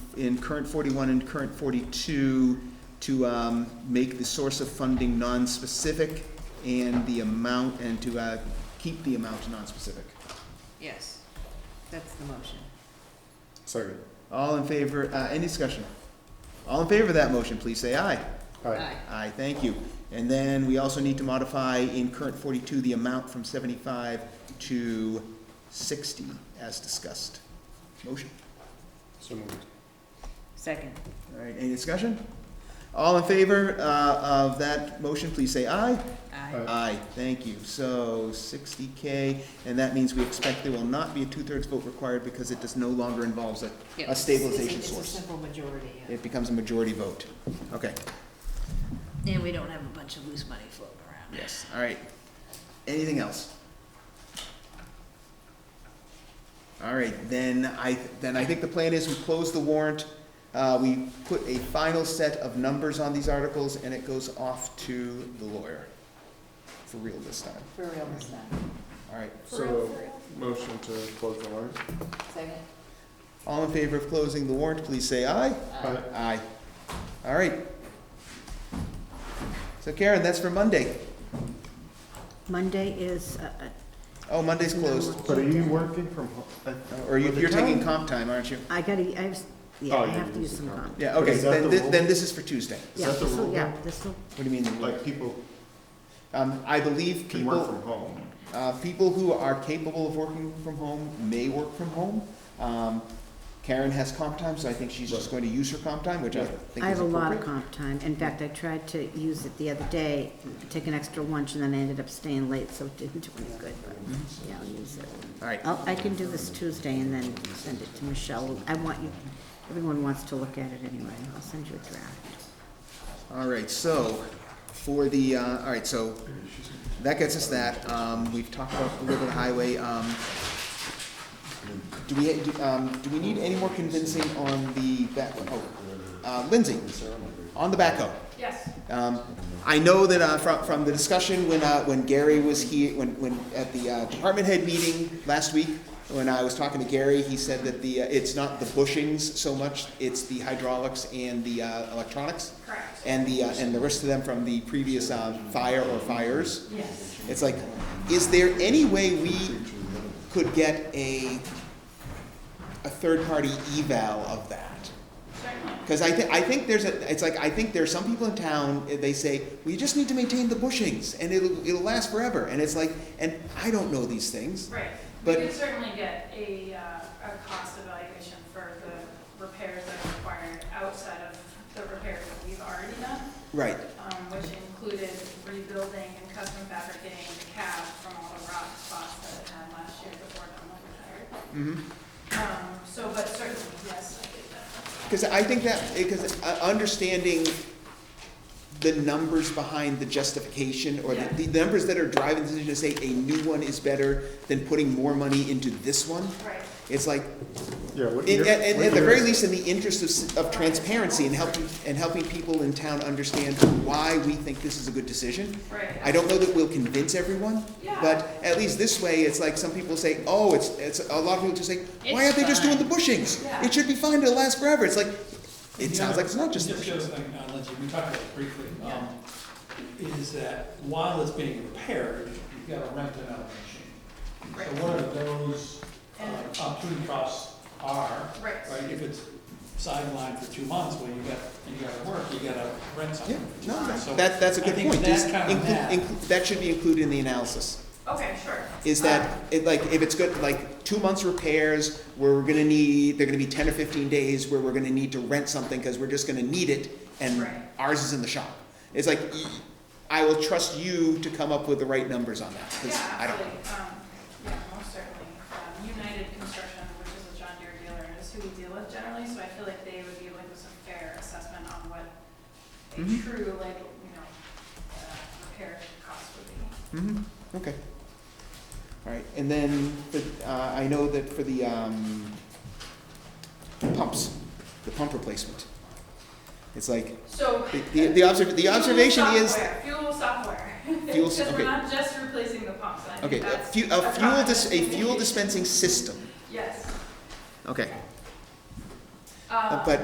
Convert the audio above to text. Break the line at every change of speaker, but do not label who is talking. in current forty-one and current forty-two to, um, make the source of funding non-specific and the amount, and to, uh, keep the amount non-specific.
Yes, that's the motion.
Second.
All in favor, uh, any discussion? All in favor of that motion, please say aye.
Aye.
Aye, thank you. And then we also need to modify in current forty-two the amount from seventy-five to sixty as discussed. Motion.
So moved.
Second.
All right, any discussion? All in favor, uh, of that motion, please say aye.
Aye.
Aye, thank you. So sixty K, and that means we expect there will not be a two-thirds vote required because it does no longer involves a,
Yep.
a stabilization
It's a- It's a
source.
simple majority, yeah.
It becomes a majority vote. Okay.
And we don't have a bunch of loose money floating around.
Yes, all right. Anything else? All right, then I, then I think the plan is we close the warrant. Uh, we put a final set of numbers on these articles and it goes off to the lawyer. For real this time.
For real this time.
All right.
So, motion to close the warrant?
Second?
All in favor of closing the warrant, please say aye.
Aye.
Aye. All right. So Karen, that's for Monday.
Monday is, uh, uh,
Oh, Monday's closed. Oh,
But are you working from home?
Or you- you're taking comp time, aren't you?
I gotta, I have, yeah,
Oh,
I
you
have to use
use the
some
comp.
comp.
Yeah,
But
okay,
is that
then,
the
thi-
rule?
then this is for Tuesday.
Is
Yeah,
that the
this'll-
rule?
Yeah, this'll,
What do you mean? the
Like
lawyer?
people
Um, I believe
can work
people,
from home?
uh, people who are capable of working from home may work from home. Um, Karen has comp time, so I think she's just going to use her comp time, which I
Yeah.
think
I
is
have a lot of
appropriate.
comp time. In fact, I tried to use it the other day, take an extra lunch, and then I ended up staying late, so it didn't do any good, but, yeah, I'll use it.
All right,
I'll, I can do this Tuesday and then send it to Michelle. I want you, everyone wants to look at it anyway. I'll send you a draft.
all right, so for the, uh, all right, so that gets us that. Um, we've talked about a little bit of highway. Um, do we, do, um, do we need any more convincing on the back, oh, uh, Lindsay, on the backhoe?
Yes.
Um, I know that uh, from, from the discussion when, uh, when Gary was here, when, when, at the uh, department head meeting last week, when I was talking to Gary, he said that the, uh, it's not the bushings so much, it's the hydraulics and the uh, electronics.
Correct.
And the, uh, and the rest of them from the previous uh, fire or fires.
Yes.
It's like, is there any way we could get a, a third-party eval of that?
Certainly.
Because I, thi- I think there's a, it's like, I think there's some people in town, eh, they say, we just need to maintain the bushings and it'll, it'll last forever. And it's like, and I don't know these things.
Right. We
But-
could certainly get a, uh, a cost evaluation for the repairs that are required outside of the repairs that we've already done,
Right,
um, which included rebuilding and custom fabricating the cab from all the rock spots that it had last year before Dunlop retired.
mm
Um, so, but certainly, yes, I did that.
Because I think that, because understanding the numbers behind the justification or
Yeah.
the, the numbers that are driving the decision to say a new one is better than putting more money into this one,
Right.
it's like,
Yeah. what
In-
year-
At, at-
what
at the very
year-
least, in the interest of, s- of transparency and helping, and helping people in town understand why we think this is a good decision.
Right.
I don't know that we'll convince everyone,
Yeah.
but at least this way, it's like some people say, oh, it's, it's, a lot of people just say,
It's
why aren't they just doing the
fine."
bushings?
Yeah.
It should be fine, it'll last forever, it's like, it
You
sounds
know,
like it's not just the
Just shows,
bushings.
like, uh, Lindsay, we talked about it briefly,
Yeah.
um, is that while it's being repaired, you've got to rent another machine.
Right.
So what are those
And-
uh, opportunity costs are,
Right.
right, if it's sidelined for two months, well, you got, you got to work, you got to rent
Yeah,
something.
no,
So
that, that- that's a
I
good
think
point.
that
Is
kind of
inclu-
math-
inclu- That should be included in the analysis.
Okay, sure. Um,
is that it, like if it's good like two months repairs where we're gonna need they're gonna be 10 or 15 days where we're gonna need to rent something because we're just gonna need it and
Right.
ours is in the shop it's like y- i will trust you to come up with the right numbers on that 'cause
Yeah,
i don't
absolutely. Um, Yeah, most certainly. Um, United Construction, which is a John Deere dealer, is who we deal with generally, so I feel like they would be able to give us a fair assessment on what a
Mhm.
true, like, you know, uh, repair cost would be.
mm-hmm. okay all right and then the, uh, i know that for the um, pumps the pump replacement it's like
So.
the, the, the, observ- the
fuel
observation is
software, Fuel software.
Fuel s-
Because we're
okay.
not just replacing the pumps, I
okay
think
a,
that's.
fu- a fuel
product
dis-
that
a
we
fuel
need.
dispensing system
Yes.
okay
Um,
but